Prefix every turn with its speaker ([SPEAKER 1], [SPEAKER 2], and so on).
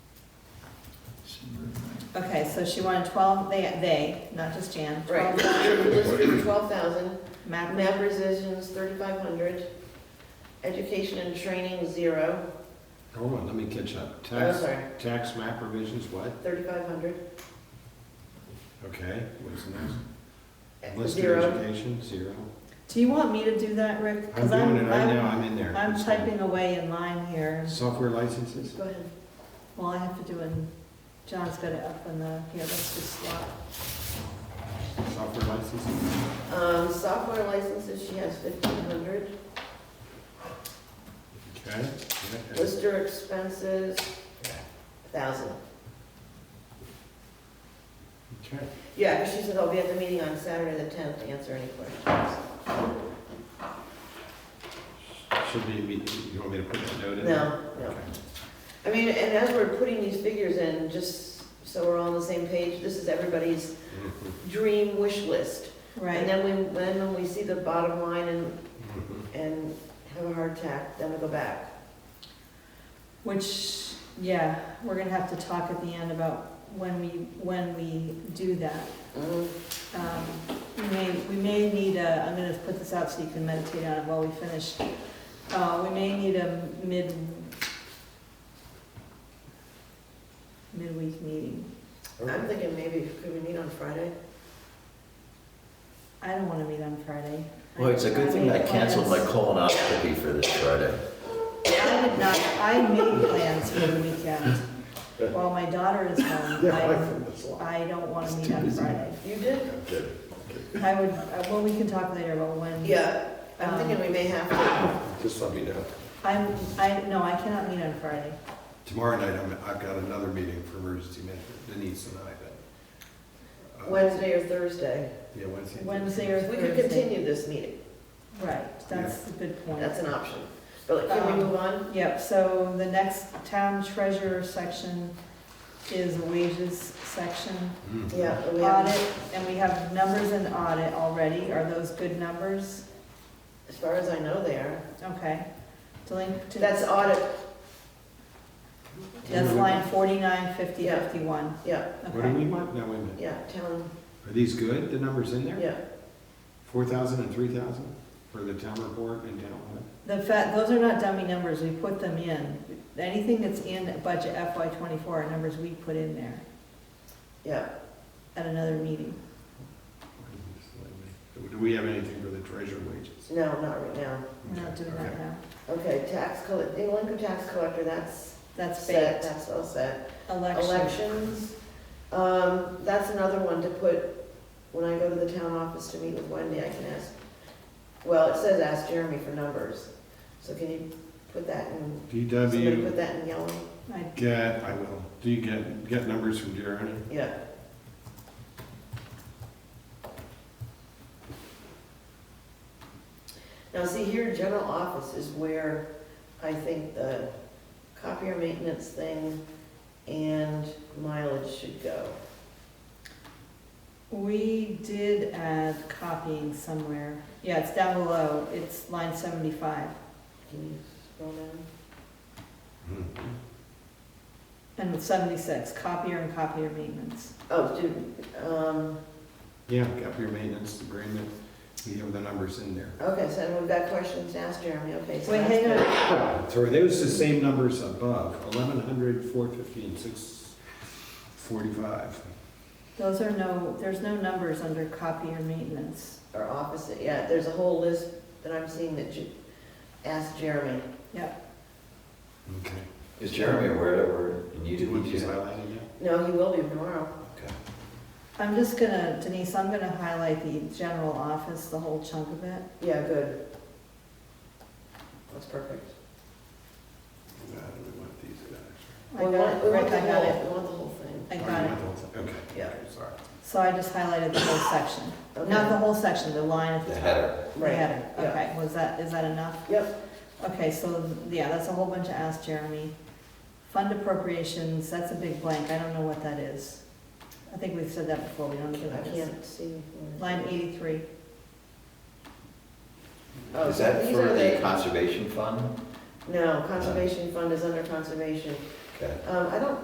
[SPEAKER 1] Okay, so she wanted twelve, they, they, not just Jan,
[SPEAKER 2] Right,
[SPEAKER 1] twelve
[SPEAKER 2] district twelve thousand,
[SPEAKER 1] map,
[SPEAKER 2] map revisions thirty-five hundred, education and training zero.
[SPEAKER 3] Hold on, let me catch up.
[SPEAKER 2] Oh,
[SPEAKER 3] Tax,
[SPEAKER 2] sorry,
[SPEAKER 3] tax map revisions, what?
[SPEAKER 2] thirty-five hundred,
[SPEAKER 3] Okay, what's next? List of
[SPEAKER 2] zero.
[SPEAKER 3] education, zero.
[SPEAKER 1] do you want me to do that, Rick? 'Cause
[SPEAKER 3] I'm doing it right now, I'm in there.
[SPEAKER 1] I'm typing away in line here,
[SPEAKER 3] Software licenses?
[SPEAKER 2] Go ahead.
[SPEAKER 1] well, I have to do it, in- John's got it up in the, here, let's just swap.
[SPEAKER 3] Software licenses?
[SPEAKER 2] Um, software licenses, she has fifteen hundred.
[SPEAKER 3] Okay. yeah, and-
[SPEAKER 2] Lister expenses, thousand.
[SPEAKER 3] Okay.
[SPEAKER 2] Yeah, because she said I'll be at the meeting on Saturday the tenth to answer any questions.
[SPEAKER 3] Should be, you want me to put that note in? there?
[SPEAKER 2] No, no.
[SPEAKER 3] Okay.
[SPEAKER 2] I mean, and as we're putting these figures in, just so we're all on the same page, this is everybody's
[SPEAKER 3] Mhm,
[SPEAKER 2] dream wish list. And
[SPEAKER 1] Right,
[SPEAKER 2] then we, then when we see the bottom line and,
[SPEAKER 3] mhm.
[SPEAKER 2] and have a hard tack, then we go back.
[SPEAKER 1] which, yeah, we're gonna have to talk at the end about when we, when we do that. Um, We may, we may need a, I'm gonna put this out so you can meditate on it while we finish. Uh, we may need a mid, midweek meeting.
[SPEAKER 2] I'm thinking maybe, could we meet on Friday?
[SPEAKER 1] I don't wanna meet on Friday.
[SPEAKER 4] Well, it's a good thing I canceled my colonoscopy for this Friday.
[SPEAKER 1] I did not, I made plans for the weekend. While my daughter is home, I,
[SPEAKER 3] this
[SPEAKER 1] I don't wanna meet on Friday.
[SPEAKER 2] You did?
[SPEAKER 1] I would, uh, well, we can talk later about when.
[SPEAKER 2] Yeah, I'm thinking we may have to.
[SPEAKER 3] Just let me know.
[SPEAKER 1] I'm, I, no, I cannot meet on Friday.
[SPEAKER 3] Tomorrow night, I'm, I've got another meeting for emergency management, Denise and I, but. uh,
[SPEAKER 2] Wednesday or Thursday.
[SPEAKER 3] Yeah, Wednesday.
[SPEAKER 1] Wednesday or
[SPEAKER 2] We could
[SPEAKER 1] Thursday.
[SPEAKER 2] continue this meeting,
[SPEAKER 1] Right, that's a good point.
[SPEAKER 2] that's an option. But like, can we
[SPEAKER 1] Um,
[SPEAKER 2] move on?
[SPEAKER 1] Yep, so the next town treasurer section is wages section.
[SPEAKER 3] Mhm.
[SPEAKER 2] Yeah. we have-
[SPEAKER 1] Audit, and we have numbers in audit already, are those good numbers?
[SPEAKER 2] As far as I know, they are.
[SPEAKER 1] Okay. Delinquent,
[SPEAKER 2] That's audit,
[SPEAKER 1] that's line forty-nine, fifty,
[SPEAKER 2] Yeah.
[SPEAKER 1] fifty-one.
[SPEAKER 2] yeah,
[SPEAKER 3] What do
[SPEAKER 1] Okay,
[SPEAKER 3] we want? No, wait a minute.
[SPEAKER 2] yeah, town,
[SPEAKER 3] Are these good, the numbers in there?
[SPEAKER 2] yeah.
[SPEAKER 3] Four thousand and three thousand for the town report and town hall?
[SPEAKER 1] the fact, those are not dummy numbers, we put them in. Anything that's in budget FY twenty-four are numbers we put in there
[SPEAKER 2] Yeah,
[SPEAKER 1] at another meeting.
[SPEAKER 3] Do we have anything for the treasurer wages?
[SPEAKER 2] no, not right now.
[SPEAKER 1] We're not doing that
[SPEAKER 3] Okay.
[SPEAKER 1] now.
[SPEAKER 2] Okay, tax collect, income tax collector, that's
[SPEAKER 1] That's
[SPEAKER 2] set,
[SPEAKER 1] baked.
[SPEAKER 2] that's all set.
[SPEAKER 1] Election,
[SPEAKER 2] Elections, um, that's another one to put, when I go to the town office to meet with Wendy, I can ask, well, it says ask Jeremy for numbers. So can you put that in, somebody
[SPEAKER 3] DW,
[SPEAKER 2] put that in yellow?
[SPEAKER 1] I
[SPEAKER 3] get, I will, do you get, get numbers from Jeremy?
[SPEAKER 2] Yeah, now see here, general office is where I think the copier maintenance thing and mileage should go.
[SPEAKER 1] We did add copying somewhere. Yeah, it's down below. It's line seventy-five.
[SPEAKER 2] Can you scroll down?
[SPEAKER 3] Mm-hmm.
[SPEAKER 1] And it's seventy-six, copier and copier maintenance.
[SPEAKER 2] Oh, dude, um,
[SPEAKER 3] Yeah, got your maintenance agreement, we have the numbers in there.
[SPEAKER 2] okay, so we've got questions to ask Jeremy, okay. so
[SPEAKER 1] Wait,
[SPEAKER 2] that's
[SPEAKER 1] hang
[SPEAKER 2] good.
[SPEAKER 1] on.
[SPEAKER 3] So are those the same numbers above, eleven hundred, four fifteen, six forty-five?
[SPEAKER 1] Those are no, there's no numbers under copier maintenance.
[SPEAKER 2] Or office, yeah, there's a whole list that I'm seeing that you, ask Jeremy.
[SPEAKER 3] Okay.
[SPEAKER 4] Is Jeremy aware that we're in
[SPEAKER 3] Do you want
[SPEAKER 4] UDP
[SPEAKER 3] these
[SPEAKER 4] too?
[SPEAKER 3] highlighted yet?
[SPEAKER 2] No, he will be tomorrow.
[SPEAKER 1] I'm just gonna, Denise, I'm gonna highlight the general office, the whole chunk of it.
[SPEAKER 2] Yeah, good. That's perfect.
[SPEAKER 3] Uh, we want these guys.
[SPEAKER 1] I
[SPEAKER 2] We
[SPEAKER 1] got
[SPEAKER 2] want,
[SPEAKER 1] it,
[SPEAKER 2] we
[SPEAKER 1] Rick,
[SPEAKER 2] want the
[SPEAKER 1] I got it.
[SPEAKER 2] whole, we want the whole thing.
[SPEAKER 1] I
[SPEAKER 3] Oh, you
[SPEAKER 1] got it.
[SPEAKER 3] want the whole thing? Okay.
[SPEAKER 2] Yeah.
[SPEAKER 3] Sorry.
[SPEAKER 1] So I just highlighted the whole section.
[SPEAKER 2] Okay.
[SPEAKER 1] Not the whole section, the line at the
[SPEAKER 4] The
[SPEAKER 1] top.
[SPEAKER 4] header.
[SPEAKER 1] The
[SPEAKER 2] Right.
[SPEAKER 1] header.
[SPEAKER 2] yeah.
[SPEAKER 1] Okay, was that, is that enough?
[SPEAKER 2] Yep,
[SPEAKER 1] Okay, so, yeah, that's a whole bunch of ask Jeremy. Fund appropriations, that's a big blank, I don't know what that is. I think we've said that before, we don't know
[SPEAKER 2] I
[SPEAKER 1] what that is.
[SPEAKER 2] can't see.
[SPEAKER 1] Line eighty-three,
[SPEAKER 2] Oh,
[SPEAKER 4] Is
[SPEAKER 2] so
[SPEAKER 4] that
[SPEAKER 2] these
[SPEAKER 4] for
[SPEAKER 2] are
[SPEAKER 4] the conservation fund?
[SPEAKER 2] No, conservation fund is under conservation.
[SPEAKER 4] Okay.
[SPEAKER 2] Um, I don't